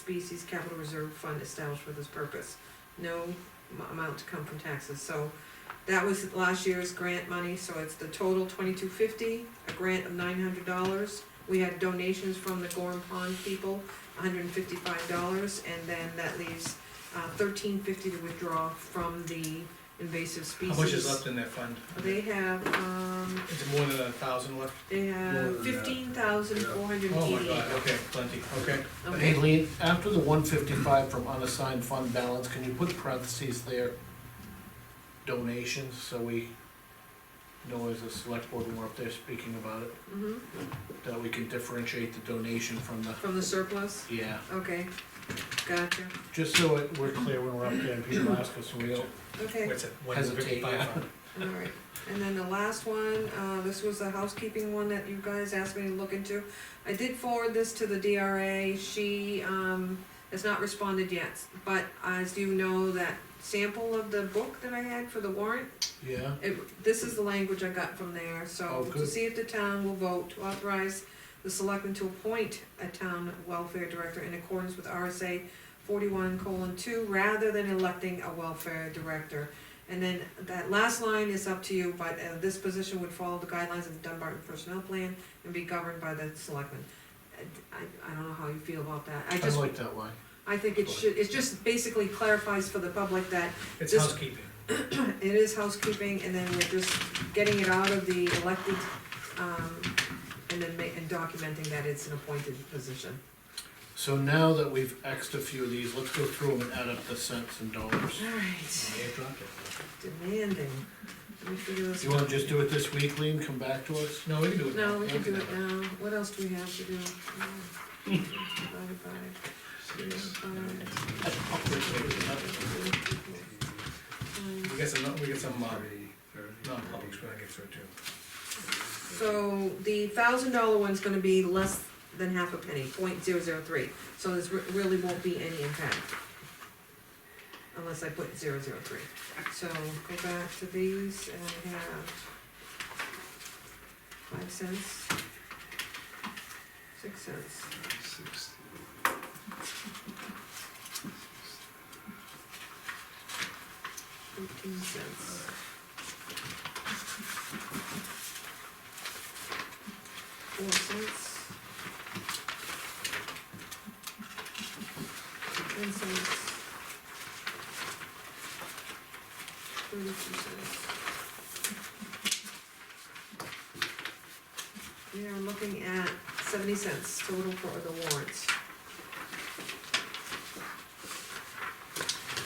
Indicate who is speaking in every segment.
Speaker 1: Species Capital Reserve Fund established for this purpose. No m- amount to come from taxes, so that was last year's grant money, so it's the total twenty-two fifty, a grant of nine hundred dollars. We had donations from the Gorham Pond people, hundred and fifty-five dollars, and then that leaves uh, thirteen fifty to withdraw from the invasive
Speaker 2: How
Speaker 1: species.
Speaker 2: much is left in that fund?
Speaker 1: They have, um,
Speaker 2: It's more than a thousand left?
Speaker 1: they
Speaker 3: More
Speaker 1: have
Speaker 3: than that.
Speaker 1: fifteen thousand four hundred and
Speaker 2: Oh my
Speaker 1: eighty-eight.
Speaker 2: god, okay, plenty, okay.
Speaker 3: Hey, Lean, after the one fifty-five from unassigned fund balance, can you put parentheses there? Donations, so we know as a select board when we're up there speaking about it,
Speaker 1: Mhm,
Speaker 3: that we can differentiate the donation from the,
Speaker 1: from the surplus,
Speaker 3: yeah.
Speaker 1: okay, gotcha,
Speaker 3: Just so it, we're clear when we're up there, and people ask us, and we don't,
Speaker 1: okay,
Speaker 2: What's it, one
Speaker 3: Hesitate,
Speaker 2: fifty-five?
Speaker 3: yeah.
Speaker 1: alright. And then the last one, uh, this was the housekeeping one that you guys asked me to look into. I did forward this to the DRA, she, um, has not responded yet, but as you know, that sample of the book that I had for the warrant,
Speaker 3: yeah,
Speaker 1: It, this is the language I got from there,
Speaker 3: Oh,
Speaker 1: so to
Speaker 3: good.
Speaker 1: see if the town will vote to authorize the selectmen to appoint a town welfare director in accordance with RSA forty-one colon two, rather than electing a welfare director. And then that last line is up to you, but uh, this position would follow the guidelines of the Dunbarton Personnel Plan and be governed by the selectmen. Uh, I, I don't know how you feel about that, I
Speaker 3: I
Speaker 1: just,
Speaker 3: like that line.
Speaker 1: I think it should, it just basically clarifies for the public that
Speaker 2: It's
Speaker 1: This-
Speaker 2: housekeeping.
Speaker 1: it is housekeeping, and then we're just getting it out of the elected, um, and then ma- and documenting that it's an appointed position.
Speaker 3: So now that we've Xed a few of these, let's go through them and add up the cents and dollars.
Speaker 1: Alright,
Speaker 2: Yeah, dropped it.
Speaker 1: demanding, let me figure this
Speaker 3: You wanna
Speaker 1: out.
Speaker 3: just do it this week, Lean, come back to us?
Speaker 2: No, we can do it. now.
Speaker 1: No, we can do it
Speaker 2: now.
Speaker 1: now, what else do we have to do? Um, divided by- by-
Speaker 2: We
Speaker 1: um,
Speaker 2: got some, we got some, uh, non-publics we're gonna get through too.
Speaker 1: So, the thousand dollar one's gonna be less than half a penny, point zero zero three, so this re- really won't be any impact. unless I put zero zero three. So go back to these and I have five cents, six cents. Fifteen cents. Four cents. Ten cents. Thirty-two cents. We are looking at seventy cents total for the warrants.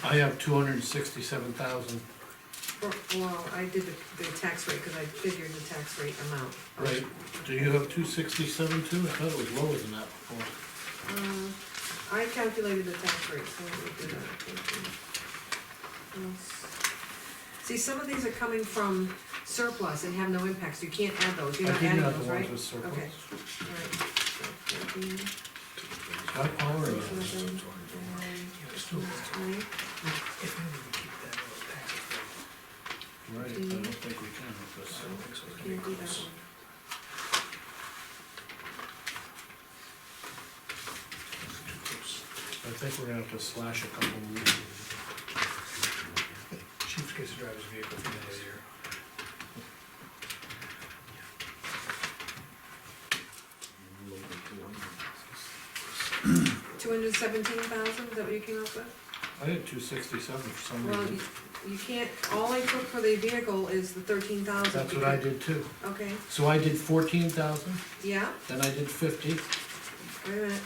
Speaker 3: I have two hundred and sixty-seven thousand,
Speaker 1: For- Well, I did the, the tax rate, cause I figured the tax rate amount.
Speaker 3: right? Do you have two sixty-seven too? I thought it was lower than that before.
Speaker 1: Uh, I calculated the tax rate, so we did that. thank you. Yes. See, some of these are coming from surplus and have no impacts, you can't add those, you're
Speaker 3: I
Speaker 1: not
Speaker 3: didn't
Speaker 1: adding
Speaker 3: have
Speaker 1: those,
Speaker 3: the
Speaker 1: right?
Speaker 3: ones with surplus.
Speaker 1: Okay. Alright, so fourteen,
Speaker 3: I power
Speaker 1: six
Speaker 3: it.
Speaker 1: of them, and twenty.
Speaker 2: If we would keep that uh, little packet,
Speaker 3: Right, I don't think we can with
Speaker 2: I
Speaker 3: this.
Speaker 2: don't think so, it's gonna be
Speaker 1: Can't do that
Speaker 2: close.
Speaker 1: one.
Speaker 2: Too close.
Speaker 3: I think we're gonna have to slash a couple of weeks.
Speaker 2: Chief gets to drive his vehicle for the end of the year.
Speaker 1: Two hundred seventeen thousand, is that what you came up with?
Speaker 3: I had two sixty-seven for some
Speaker 1: Well,
Speaker 3: reason.
Speaker 1: you, you can't, all I took for the vehicle is the thirteen thousand.
Speaker 3: That's what I did too.
Speaker 1: Okay,
Speaker 3: So I did fourteen thousand,
Speaker 1: yeah,
Speaker 3: then I did fifty.
Speaker 1: wait a minute,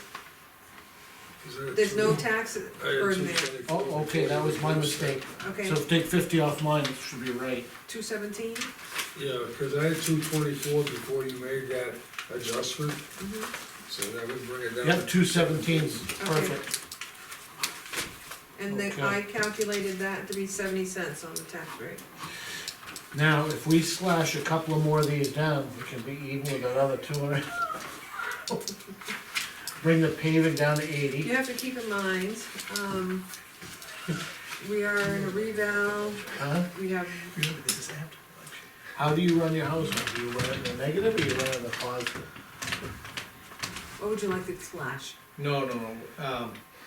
Speaker 4: Is there a
Speaker 1: there's no
Speaker 4: two-
Speaker 1: tax
Speaker 4: I had
Speaker 1: burden
Speaker 4: two
Speaker 1: there,
Speaker 4: twenty-four
Speaker 3: Oh, okay, that was my mistake.
Speaker 1: okay,
Speaker 3: So if take fifty off mine, it should be right.
Speaker 1: two seventeen?
Speaker 4: Yeah, because I had two twenty-four before you made that adjustment,
Speaker 1: Mm-hmm.
Speaker 4: so that would bring it down.
Speaker 3: Yep, two seventeen's perfect.
Speaker 1: And then
Speaker 3: Okay.
Speaker 1: I calculated that to be seventy cents on the tax rate.
Speaker 3: Now, if we slash a couple of more of these down, we can be even with that other two hundred. Bring the paving down to eighty.
Speaker 1: You have to keep in mind, um, we are in a revow,
Speaker 3: Huh?
Speaker 1: we have,
Speaker 2: Remember, this is after the election.
Speaker 3: How do you run your household? Do you run it in the negative or you run it in the positive?
Speaker 1: what would you like to slash?
Speaker 2: No, no, no, um,